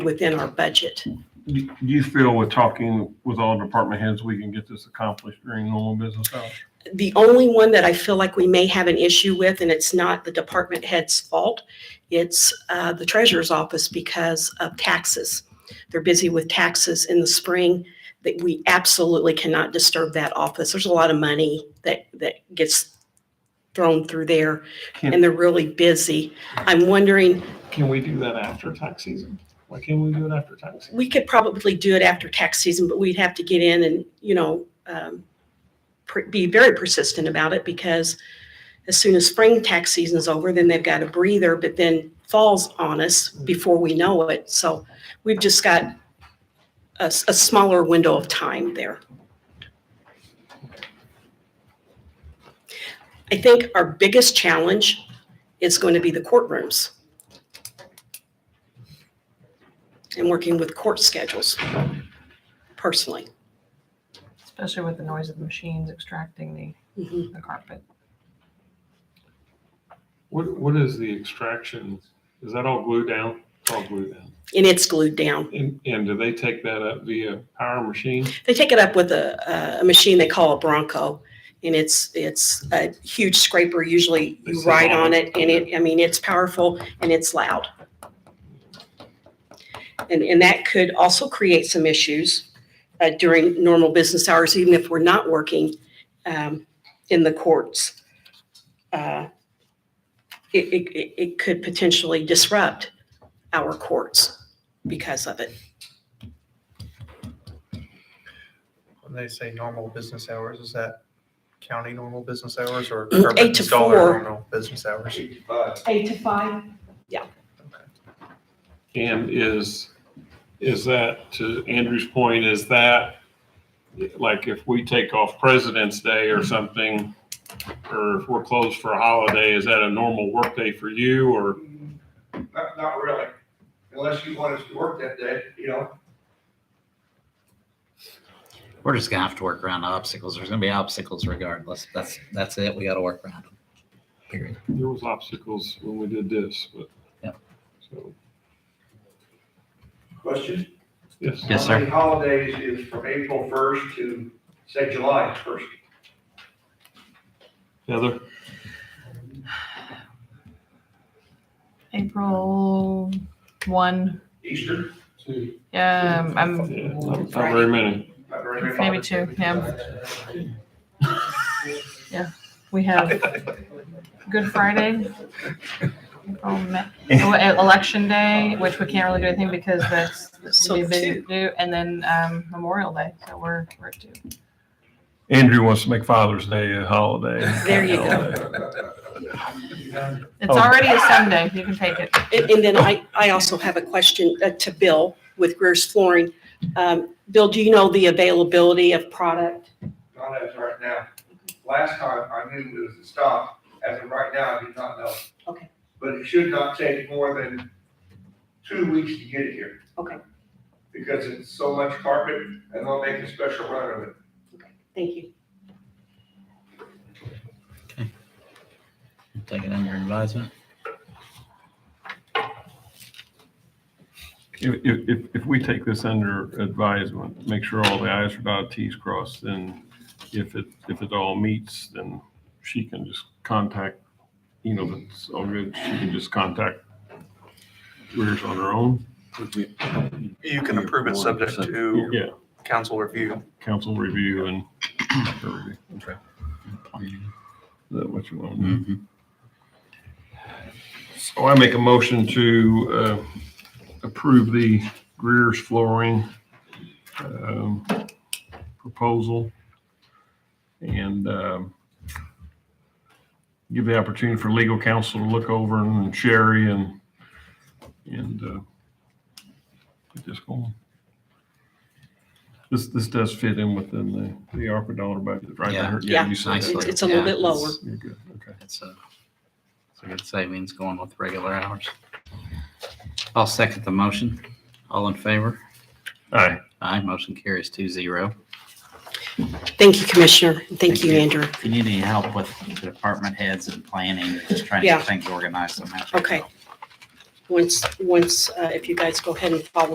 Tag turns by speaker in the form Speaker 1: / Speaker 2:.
Speaker 1: within our budget.
Speaker 2: You you feel with talking with all department heads, we can get this accomplished during normal business hours?
Speaker 1: The only one that I feel like we may have an issue with, and it's not the department head's fault, it's uh, the treasurer's office because of taxes. They're busy with taxes in the spring, that we absolutely cannot disturb that office. There's a lot of money that, that gets thrown through there, and
Speaker 2: Can,
Speaker 1: they're really busy. I'm wondering,
Speaker 2: can we do that after tax season? Why can't we do it after tax? season?
Speaker 1: we could probably do it after tax season, but we'd have to get in and, you know, um, per- be very persistent about it because as soon as spring tax season's over, then they've got a breather, but then falls on us before we know it. So we've just got a, s- a smaller window of time there. I think our biggest challenge is going to be the courtrooms and working with court schedules personally.
Speaker 3: Especially with the noise of the machines extracting
Speaker 1: Mhm.
Speaker 3: the, the carpet.
Speaker 4: What, what is the extraction? Is that all glued down? It's all glued down.
Speaker 1: And it's glued down.
Speaker 4: And, and do they take that up via power machine?
Speaker 1: They take it up with a, a machine they call a Bronco. And it's, it's a huge scraper. Usually
Speaker 4: They
Speaker 1: you
Speaker 4: sit
Speaker 1: ride on
Speaker 4: on
Speaker 1: it
Speaker 4: it.
Speaker 1: and it, I mean, it's powerful and it's loud. And, and that could also create some issues uh, during normal business hours, even if we're not working um, in the courts. Uh, It, it, it- it could potentially disrupt our courts because of it.
Speaker 5: When they say normal business hours, is that county normal business hours or?
Speaker 1: Mm,
Speaker 5: urban
Speaker 1: eight to
Speaker 5: installer
Speaker 1: four.
Speaker 5: Normal business hours.
Speaker 1: Eight to five?
Speaker 4: And is, is that, to Andrew's point, is that, like, if we take off President's Day or something, or if we're closed for a holiday, is that a normal workday for you, or?
Speaker 6: Not, not really, unless you want us to work that day, you know?
Speaker 7: We're just gonna have to work around the obstacles. There's gonna be obstacles regardless. That's, that's it. We gotta work around them. Period.
Speaker 4: There was obstacles when we did this, but.
Speaker 7: Yep.
Speaker 4: So,
Speaker 6: Question?
Speaker 4: yes.
Speaker 7: Yes,
Speaker 6: How
Speaker 7: sir.
Speaker 6: many holidays is from April first to, say, July first?
Speaker 4: Heather?
Speaker 3: April one,
Speaker 6: Easter?
Speaker 3: um, I'm
Speaker 4: Yeah, not not very many.
Speaker 6: Not very many
Speaker 3: maybe
Speaker 6: holidays.
Speaker 3: two, yeah. Yeah, we have Good Friday. April, Ma- oh, e- Election Day, which we can't really do anything because that's, that's gonna be a big do, and then, um, Memorial Day, so we're, we're at two.
Speaker 2: Andrew wants to make Father's Day a holiday.
Speaker 1: There you go.
Speaker 3: It's already a Sunday, you can take it.
Speaker 1: And, and then I, I also have a question uh, to Bill with Greer's Flooring. Um, Bill, do you know the availability of product?
Speaker 6: Not as right now. Last time I knew it was a stop, as of right now, I do not know.
Speaker 1: Okay.
Speaker 6: But it should not take more than two weeks to get it here.
Speaker 1: Okay.
Speaker 6: Because it's so much carpet, and they'll make a special run of it.
Speaker 1: Thank you.
Speaker 7: Take it under advisement.
Speaker 2: If, if, if- if we take this under advisement, make sure all the i's are dotted, t's crossed, then if it, if it all meets, then she can just contact, you know, that's all good. She can just contact Rears on her own.
Speaker 5: You can approve it subject to
Speaker 2: Yeah,
Speaker 5: council review.
Speaker 2: council review and her review. Is that what you want?
Speaker 7: Mhm.
Speaker 2: So Oh, I make a motion to uh, approve the Greer's flooring um, proposal and um, give the opportunity for legal counsel to look over and Sherry and, and uh, get this going. This, this does fit in within the, the ARPA dollar budget, right? I
Speaker 7: Yeah.
Speaker 2: heard-
Speaker 1: Yeah,
Speaker 2: you said
Speaker 7: nicely.
Speaker 2: that.
Speaker 1: It's, it's a little
Speaker 7: Yeah,
Speaker 1: bit lower.
Speaker 7: it's-
Speaker 2: You're good, okay.
Speaker 7: It's a, it's a good savings going with regular hours. I'll second the motion. All in favor?
Speaker 2: All right.
Speaker 7: Aye. Motion carries two zero.
Speaker 1: Thank you, Commissioner. and Thank
Speaker 7: Thank
Speaker 1: you,
Speaker 7: you.
Speaker 1: Andrew.
Speaker 7: If you need any help with the department heads and planning, just trying to
Speaker 1: Yeah.
Speaker 7: get things organized somehow.
Speaker 1: Okay. Once, once, uh, if you guys go ahead and follow